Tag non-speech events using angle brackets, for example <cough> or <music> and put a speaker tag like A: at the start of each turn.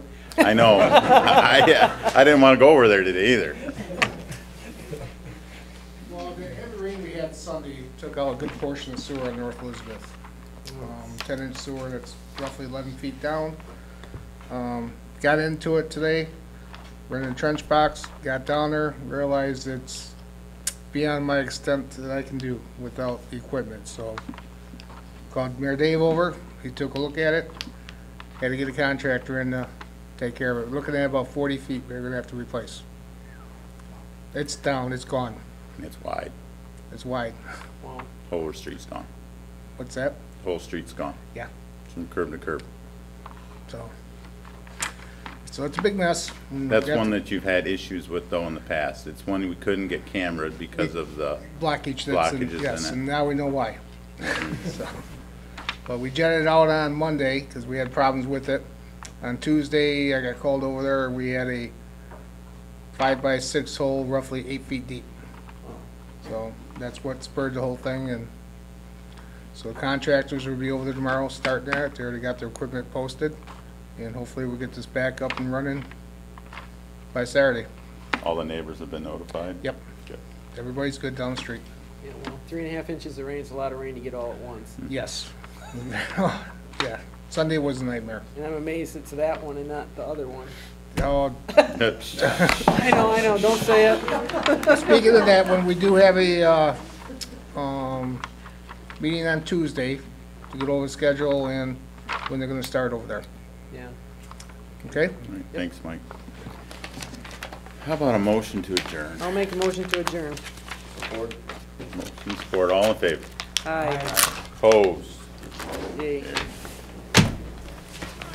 A: I know. <laughs> I, I didn't want to go over there today either.
B: Well, the heavy rain we had Sunday took out a good portion of sewer on North Elizabeth. Um, Ten-inch sewer that's roughly eleven feet down. Um, Got into it today, rented a trench box, got down there, realized it's beyond my extent that I can do without the equipment, so called Mayor Dave over, he took a look at it, had to get a contractor in to take care of it. Looking at about forty feet we're gonna have to replace. It's down, it's gone.
A: It's wide.
B: It's wide.
A: Whole street's gone.
B: What's that?
A: Whole street's gone.
B: Yeah.
A: From curb to curb.
B: So, so it's a big mess. Mm, and we
A: That's
B: got
A: one that you've had issues with though in the past. It's one we couldn't get camered because of the,
B: Blockage that's, in-
A: blockages in
B: yes,
A: it.
B: and now we know
A: <laughs>
B: why. So, But we jetted it out on Monday because we had problems with it. On Tuesday, I got called over there. We had a five by six hole roughly eight feet deep. So that's what spurred the whole thing and so contractors will be over there tomorrow, start that. They already got their equipment posted. And hopefully we'll get this back up and running by Saturday.
A: all the neighbors have been notified?
B: Yep.
A: Good. <laughs>
B: Everybody's good down the street.
C: Yeah, well, three and a half inches of rain is a lot of rain to get all at once.
B: Yes. <laughs> Yeah, Sunday was a nightmare.
C: And I'm amazed it's that one and not the other one.
B: Oh,
C: I know, I know, don't say it.
B: Speaking of that, when we do have a, uh, um, meeting on Tuesday to get over the schedule and when they're gonna start over there,
C: Yeah.
B: okay?
A: All right, Thanks, Mike. How about a motion to adjourn?
C: I'll make a motion to adjourn.
A: Motion support, all in favor?
C: Aye.
A: Opposed?
C: Yay.